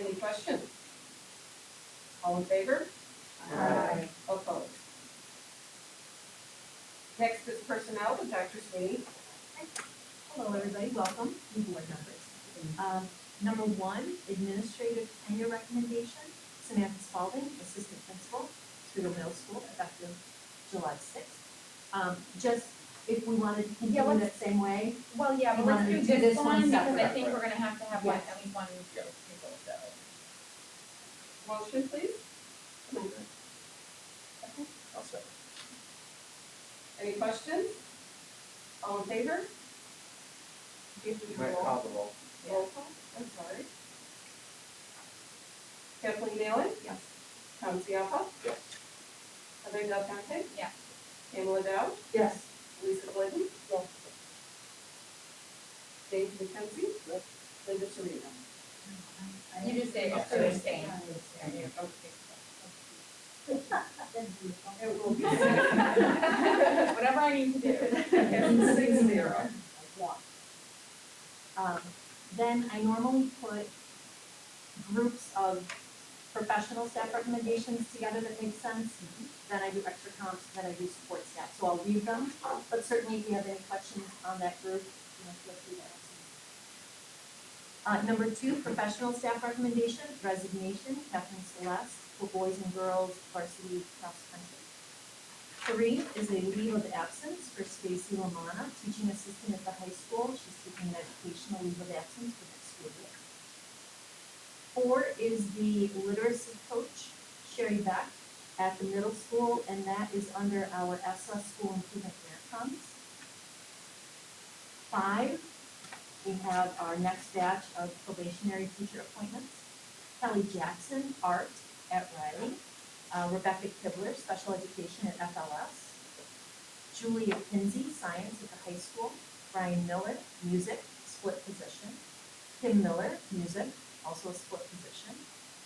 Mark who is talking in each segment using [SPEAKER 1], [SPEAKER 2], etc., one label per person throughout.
[SPEAKER 1] Any questions? All in favor?
[SPEAKER 2] Aye.
[SPEAKER 1] Opposed? Next is personnel with Dr. Sweeney.
[SPEAKER 3] Hello, everybody, welcome, new board members. Um, number one, administrative tenure recommendation, Samantha Spalding, assistant principal, Toledo Middle School, effective July sixth. Um, just if we wanted to continue
[SPEAKER 2] Yeah, let's-
[SPEAKER 3] that same way,
[SPEAKER 2] Well, yeah,
[SPEAKER 3] You
[SPEAKER 2] but let's
[SPEAKER 3] wanna
[SPEAKER 2] do
[SPEAKER 3] do
[SPEAKER 2] this
[SPEAKER 3] this
[SPEAKER 2] one
[SPEAKER 3] one
[SPEAKER 2] because I
[SPEAKER 3] separate?
[SPEAKER 2] think we're gonna have to have like
[SPEAKER 3] Yes.
[SPEAKER 2] at least one go people, so.
[SPEAKER 1] Motion, please.
[SPEAKER 4] I'll second.
[SPEAKER 1] Any questions? All in favor? Do you have to do a
[SPEAKER 4] Might
[SPEAKER 1] roll?
[SPEAKER 4] call the roll.
[SPEAKER 1] Roll call, I'm sorry. Kathleen Allen?
[SPEAKER 3] Yes.
[SPEAKER 1] Tom Ciappa?
[SPEAKER 4] Yes.
[SPEAKER 1] Heather Del Conte?
[SPEAKER 2] Yes.
[SPEAKER 1] Pamela Dow?
[SPEAKER 3] Yes.
[SPEAKER 1] Lisa Glidden? Yes. Dave McKenzie? Yes. Linda Serena?
[SPEAKER 2] You just say,
[SPEAKER 4] Yes.
[SPEAKER 2] so you're staying.
[SPEAKER 1] It will be
[SPEAKER 2] Whatever I need to do.
[SPEAKER 1] six, six zero.
[SPEAKER 3] Yeah. Um, then I normally put groups of professional staff recommendations together that make sense. Then I do extra comps, then I do support staff, so I'll leave them, but certainly if you have any questions on that group, you know, feel free to ask me. Uh, number two, professional staff recommendation, resignation, Kathleen Celeste, for boys and girls varsity cross country. Three is a leave of absence for Stacy Lamana, teaching assistant at the high school. She's taking an educational leave of absence for next school year. Four is the literacy coach, Sherry Beck, at the middle school, and that is under our ESSA school improvement grant funds. Five, we have our next batch of probationary teacher appointments. Kelly Jackson, art at Riley. Uh, Rebecca Kibler, special education at FLS. Julia Pinsey, science at the high school. Brian Miller, music, split position. Kim Miller, music, also a split position.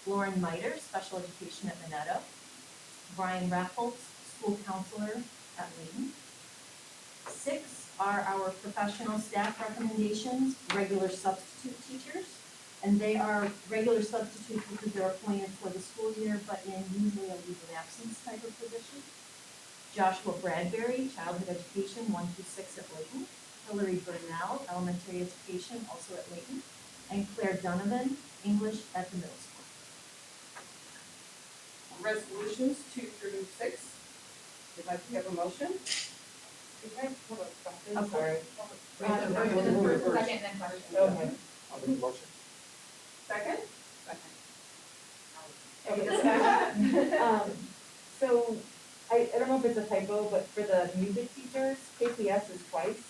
[SPEAKER 3] Lauren Miter, special education at Minetto. Brian Raffles, school counselor at Layton. Six are our professional staff recommendations, regular substitute teachers. And they are regular substitutes because they're appointed for the school year, but in usually a leave of absence type of position. Joshua Bradbury, childhood education, one through six at Layton. Hillary Burnell, elementary education, also at Layton. And Claire Donovan, English at the middle school.
[SPEAKER 1] Resolutions two through six. Would like to have a motion?
[SPEAKER 3] Of course.
[SPEAKER 2] Uh,
[SPEAKER 1] Wait, wait,
[SPEAKER 2] first and
[SPEAKER 1] wait, wait.
[SPEAKER 2] Second and then question.
[SPEAKER 1] Okay.
[SPEAKER 4] I'll make the motion.
[SPEAKER 1] Second? Any
[SPEAKER 5] Okay.
[SPEAKER 1] discussion?
[SPEAKER 5] Um, so, I, I don't know if it's a typo, but for the music teachers, KPS is twice.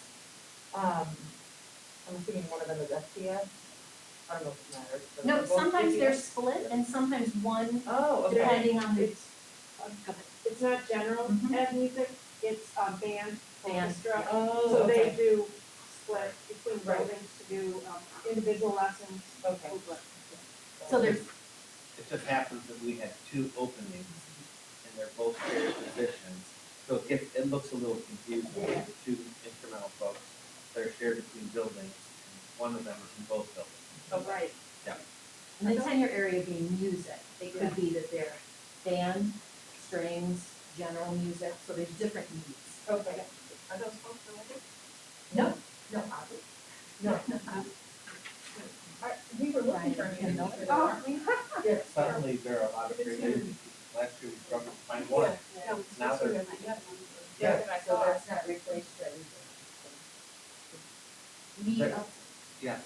[SPEAKER 5] Um, I'm assuming one of them is SPS. I don't know if it matters. but
[SPEAKER 3] No,
[SPEAKER 5] they're both
[SPEAKER 3] sometimes they're
[SPEAKER 5] KPS.
[SPEAKER 3] split and sometimes one,
[SPEAKER 5] Oh, okay.
[SPEAKER 3] depending on the,
[SPEAKER 5] It's,
[SPEAKER 3] go ahead.
[SPEAKER 5] it's not general
[SPEAKER 3] Mhm.
[SPEAKER 5] ed music, it's, um, band,
[SPEAKER 3] Band,
[SPEAKER 5] orchestra.
[SPEAKER 3] Oh,
[SPEAKER 5] So they
[SPEAKER 3] okay.
[SPEAKER 5] do split between
[SPEAKER 3] Right.
[SPEAKER 5] buildings to do, um, individual lessons. Okay.
[SPEAKER 3] So there's,
[SPEAKER 6] It just happens that we had two openings and they're both shared positions. So it gets, it looks a little confusing with the two instrumental folks that are shared between buildings. and One of them is in both buildings.
[SPEAKER 5] Oh, right.
[SPEAKER 3] and the tenure area being music, they could be that they're band, strings, general music, so there's different needs.
[SPEAKER 5] Okay.
[SPEAKER 1] Are those folks related?
[SPEAKER 3] No, no, obvi- no, no, obvi-
[SPEAKER 2] Are- We were looking for a
[SPEAKER 3] Brian,
[SPEAKER 2] meeting
[SPEAKER 3] no.
[SPEAKER 2] for the
[SPEAKER 1] Oh.
[SPEAKER 2] warrant.
[SPEAKER 6] Suddenly, there are a lot of great agencies. Last year, we struggled to find one. Now they're,
[SPEAKER 2] Yeah, but I
[SPEAKER 5] So
[SPEAKER 2] thought-
[SPEAKER 5] that's not replaced by anything.
[SPEAKER 3] we,
[SPEAKER 6] Right.
[SPEAKER 3] uh,
[SPEAKER 6] yes.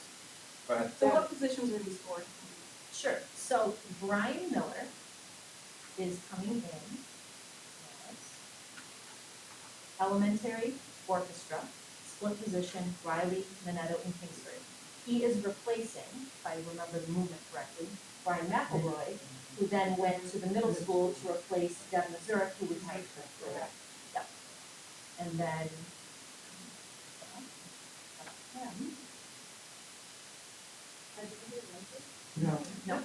[SPEAKER 6] But
[SPEAKER 1] So what positions are these for?
[SPEAKER 3] sure, so Brian Miller is coming in as elementary orchestra, split position, Riley, Minetto, and Kingsbury. He is replacing, if I remember the movement correctly, Brian McElroy, who then went to the middle school to replace Deb Mazurek, who was high school.
[SPEAKER 5] Correct.
[SPEAKER 3] Yep. And then. Him.
[SPEAKER 4] No.
[SPEAKER 3] No.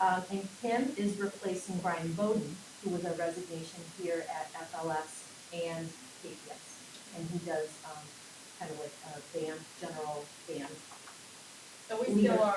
[SPEAKER 3] Um, and Kim is replacing Brian Bowden, who was a resignation here at FLS and KPS. And he does, um, kind of like a band, general band
[SPEAKER 2] So we still are